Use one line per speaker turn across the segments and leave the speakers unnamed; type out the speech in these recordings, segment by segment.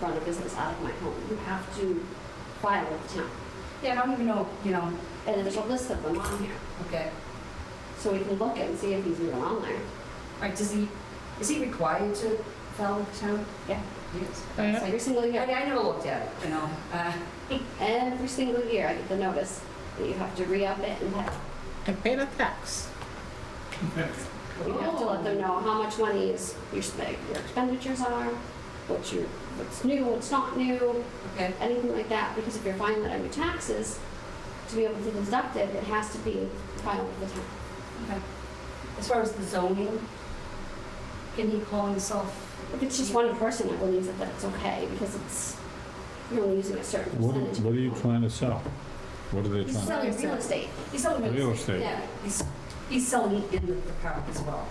run a business out of my home. You have to file with the town.
Yeah, I don't even know, you know,
And there's a list of them on here,
okay.
so we can look and see if he's even on there.
All right, does he, is he required to file with the town?
Yeah.
He is.
Oh, yeah?
Every single
I mean,
year,
I never looked at it, you know. uh,
every single year, I get the notice that you have to re-up it and that
and pay the tax.
You have to Oh, let them know how much money is your spend, your expenditures are, what you, what's new, what's not new,
Okay,
anything like that, because if you're filing it under taxes, to be able to deduct it, it has to be filed with the town.
okay. As far as the zoning, can he call himself?
If it's just one person that believes it, that's okay, because it's, you're only using a certain
What,
percentage.
what are you trying to sell? What are they
He's
trying,
selling real estate,
He's selling
real
real estate.
estate?
yeah.
He's, he's selling in the the park as well.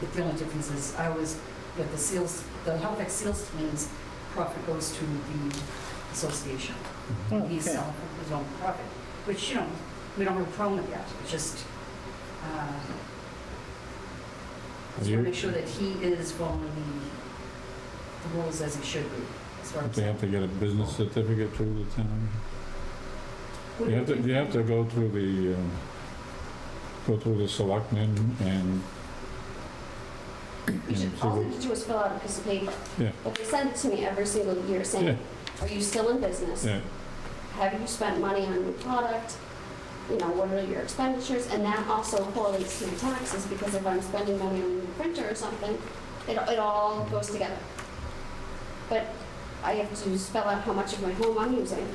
But The only difference is I was, with the seals, the Halifax Seals means profit goes to the association. He's
Okay.
selling for his own profit, which, you know, we don't have a problem with that. It's just, uh, just want
You-
to make sure that he is following the- the rules as he should be, as far
Don't
as.
they have to get a business certificate through the town? You have to, you have to go through the, um, go through the selectmen and,
You should,
and see
all
what-
you have to do is fill out a piece of paper.
Yeah.
But they send it to me every single year saying, are you still in business?
yeah,
Have you spent money on new product? You know, what are your expenditures? And that also correlates to the taxes, because if I'm spending money on a new printer or something, it, it all goes together. But I have to spell out how much of my home I'm using,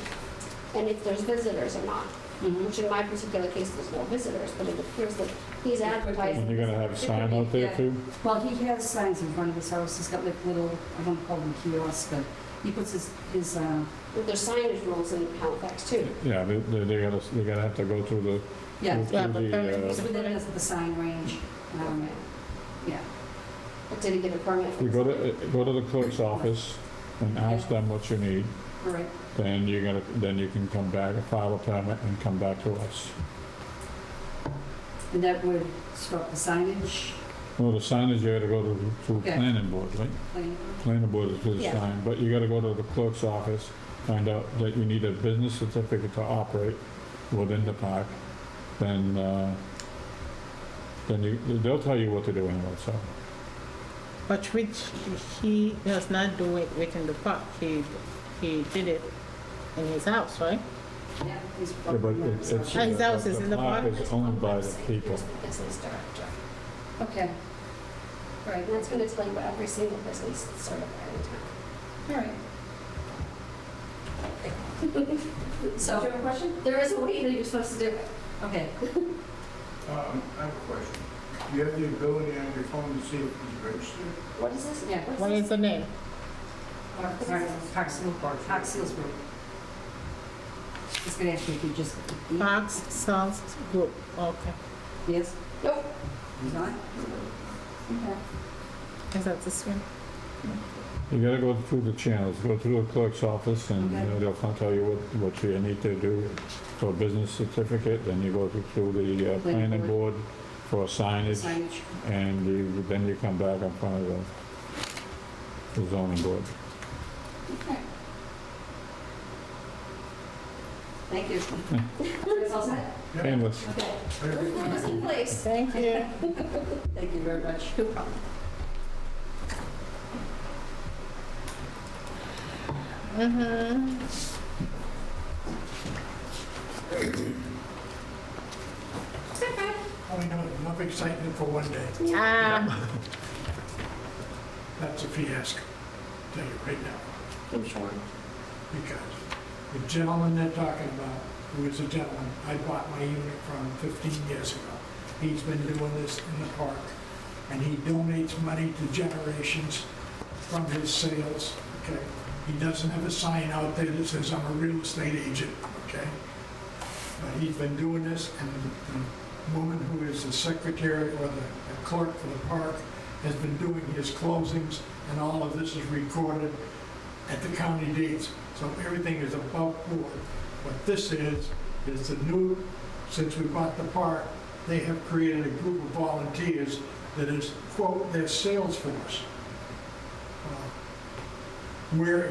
and if there's visitors or not,
Mhm.
which in my particular case, there's no visitors, but it appears that he's advertising.
and you're gonna have a sign out there too?
Well, he has signs in front of his house, he's got like little, I don't call them kiosks, but he puts his, his, uh,
But There's signage rules in Halifax too.
Yeah, they, they they gotta, they gotta have to go through the,
yeah,
through
Yeah, but
the,
it's
uh,
they're-
within the the sign range, um, yeah.
But did he get a permit?
you go to, uh, go to the clerk's office and ask them what you need,
All right,
then you're gonna, then you can come back, file a permit and come back to us.
and that would stop the signage,
Well, the signage, you gotta go to, to
Yeah.
planning board, right?
like,
planning board is his
Yeah.
sign, but you gotta go to the clerk's office, find out that you need a business certificate to operate within the park, then, uh, then you, they'll tell you what to do anyway, so.
But which he does not do it within the park. He he did it in his house, right?
yeah, he's.
Yeah, but it- it's- uh,
Ah, his house is in the park?
is owned by the
Um,
people.
Business director.
Okay. All right,
And that's going to tell you what every single business is certified in town.
all right. So-
Do you have a question? There is a way that you're supposed to do it.
Okay,
Um, I have a question. You have the ability on your phone to see if he's registered?
What is this?
Yeah.
What is the name?
All right, Park Seal, Park Seals Group. Just gonna ask you if you just,
Parks Sales Group. Okay.
yes,
Nope.
he's not? Okay.
Is that this one?
You gotta go through the channels, go through the clerk's office, and you
Okay.
know, they'll con- tell you what, what you need to do for a business certificate, then you go through the uh,
Planning
planning board for signage,
Signage,
and you, then you come back in front of the- the zoning board.
okay. Thank you. It's all set?
Painless.
Okay.
Very good.
That was in place.
Thank you.
Thank you very much.
No problem.
Mm-hmm.
Only no- enough excitement for one day.
Ah,
That's a fiasco, tell you right now.
I'm sure.
Because the gentleman they're talking about, who is a gentleman I bought my unit from 15 years ago, he's been doing this in the park, and he donates money to generations from his sales, okay? He doesn't have a sign out there that says, "I'm a real estate agent," okay? But he's been doing this, and the- the woman who is the secretary or the clerk for the park has been doing his closings, and all of this is recorded at the county dates, so everything is above board. What this is, is the new, since we bought the park, they have created a group of volunteers that is, quote, their sales force. Uh, Where